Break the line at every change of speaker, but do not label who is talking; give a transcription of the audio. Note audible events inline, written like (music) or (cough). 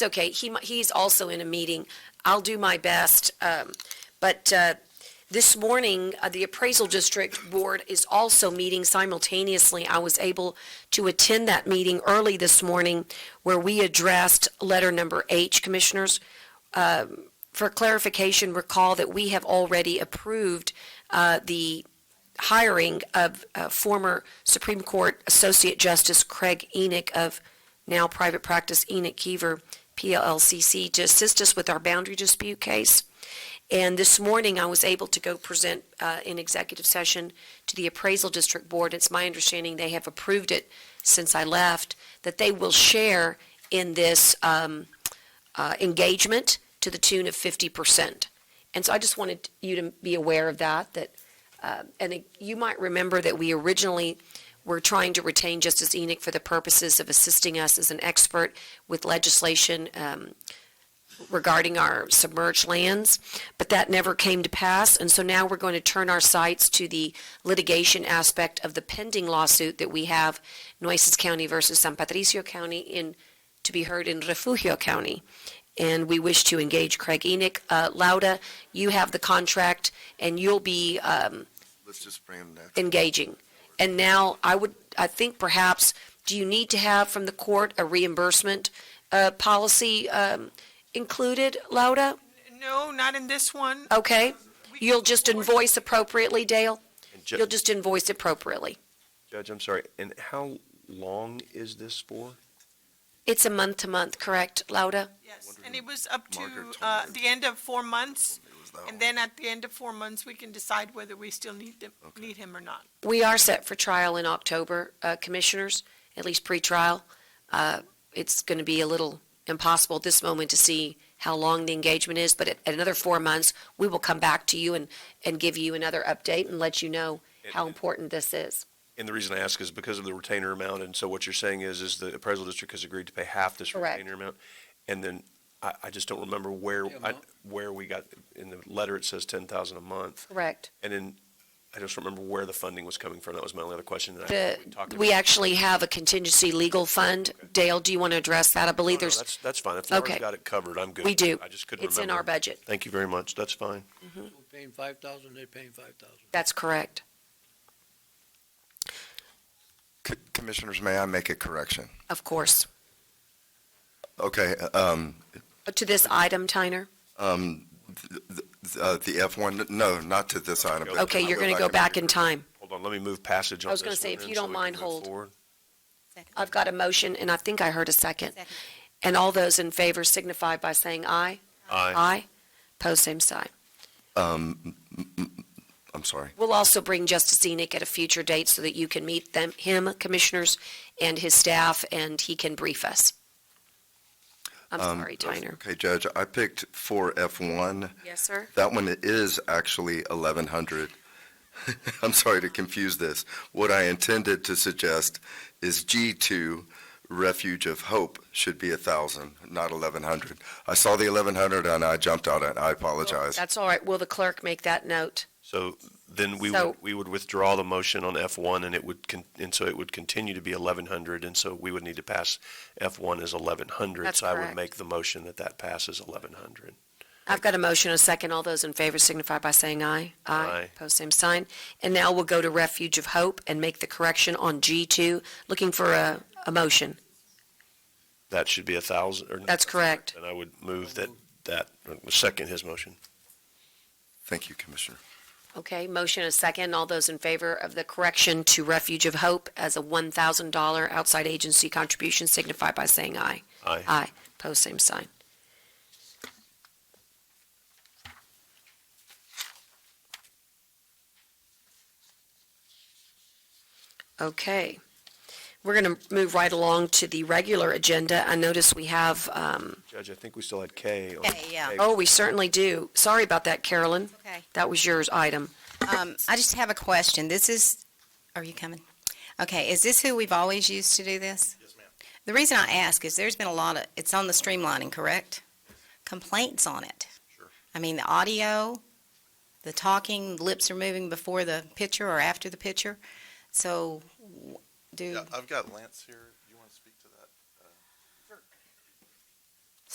It's okay, he, mi- he's also in a meeting. I'll do my best. um, But uh, this morning, uh, the Appraisal District Board is also meeting simultaneously. I was able to attend that meeting early this morning where we addressed letter number H, Commissioners. Um, For clarification, recall that we have already approved uh, the hiring of uh, former Supreme Court Associate Justice Craig Enoch of now private practice Enoch Kiever, PLLCC, to assist us with our boundary dispute case. And this morning, I was able to go present uh, in executive session to the Appraisal District Board. It's my understanding they have approved it since I left, that they will share in this um, uh, engagement to the tune of 50%. And so I just wanted you to be aware of that, that uh, and it- you might remember that we originally were trying to retain Justice Enoch for the purposes of assisting us as an expert with legislation um, regarding our submerged lands, but that never came to pass. And so now we're going to turn our sights to the litigation aspect of the pending lawsuit that we have, Nueces County versus San Patricio County, in, to be heard in Refugio County. And we wish to engage Craig Enoch. Uh, Lauda, you have the contract, and you'll be um,
Let's just bring him next.
engaging. And now I would, I think perhaps, do you need to have from the court a reimbursement uh, policy um, included, Lauda?
No, not in this one.
Okay?
We can
You'll just
afford-
invoice appropriately, Dale?
And Ju-
You'll just invoice appropriately.
Judge, I'm sorry, and how long is this for?
It's a month to month, correct, Lauda?
Yes, and it was up to
Margaret told
uh,
me.
the end of four months,
It was that
and
one.
then at the end of four months, we can decide whether we still need them, need him or not.
We are set for trial in October, uh, commissioners, at least pre-trial. Uh, It's going to be a little impossible at this moment to see how long the engagement is, but at at another four months, we will come back to you and, and give you another update and let you know how important this is.
And the reason I ask is because of the retainer amount, and so what you're saying is, is the appraisal district has agreed to pay half this
Correct.
retainer amount? And then, I, I just don't remember where, I, where we got, in the letter it says ten thousand a month,
Correct.
and then, I just remember where the funding was coming from, that was my only other question, and I,
The,
we talked about.
we actually have a contingency legal fund. Dale, do you want to address that? I
No, no,
believe there's,
That's, that's fine, if Laura's
Okay.
got it covered, I'm good.
we do.
I just couldn't
It's in
remember.
our budget.
Thank you very much, that's fine.
We're paying five thousand, they're paying five thousand.
That's correct.
C- Commissioners, may I make a correction?
Of course.
Okay, um,
To this item, Tyner?
um, th- th- uh, the F1, no, not to this item. but-
Okay, you're going to go back in time.
Hold on, let me move passage on
I was
this
gonna say,
one
if
then
you
so
don't
we can
mind,
move
hold.
forward.
I've got a motion, and I think I heard a second. And all those in favor signify by saying aye.
Aye.
Aye. Pose same sign.
Um, m- m- I'm sorry.
We'll also bring Justice Enoch at a future date so that you can meet them, him, commissioners, and his staff, and he can brief us. I'm
Um,
sorry, Tyner.
Okay, Judge, I picked for F1.
Yes, sir.
That one is actually 1,100. (laughs) I'm sorry to confuse this. What I intended to suggest is G2, Refuge of Hope, should be 1,000, not 1,100. I saw the 1,100 and I jumped on it. I apologize.
That's all right. Will the clerk make that note?
So then we
So-
would, we would withdraw the motion on F1 and it would, con- and so it would continue to be 1,100. And so we would need to pass F1 as 1,100.
That's
So I would
correct.
make the motion that that passes 1,100.
I've got a motion, and a second. All those in favor signify by saying aye.
Aye.
Pose same sign. And now we'll go to Refuge of Hope and make the correction on G2, looking for a, a motion.
That should be 1,000 or.
That's correct.
And I would move that, that, second his motion.
Thank you, Commissioner.
Okay, motion is second. All those in favor of the correction to Refuge of Hope as a $1,000 outside agency contribution signify by saying aye.
Aye.
Aye. Pose same sign. Okay. We're going to move right along to the regular agenda. I notice we have, um,
Judge, I think we still had K. on-
K, yeah.
K.
oh, we certainly do. Sorry about that, Carolyn.
Okay.
That was yours item.
Um, I just have a question. This is, are you coming? Okay, is this who we've always used to do this? Yes, ma'am. The reason I ask is there's been a lot of, it's on the streamlining, correct? Complaints on it.
Sure.
I mean, the audio, the talking, lips are moving before the picture or after the picture. So w- do,
Yeah, I've got Lance here.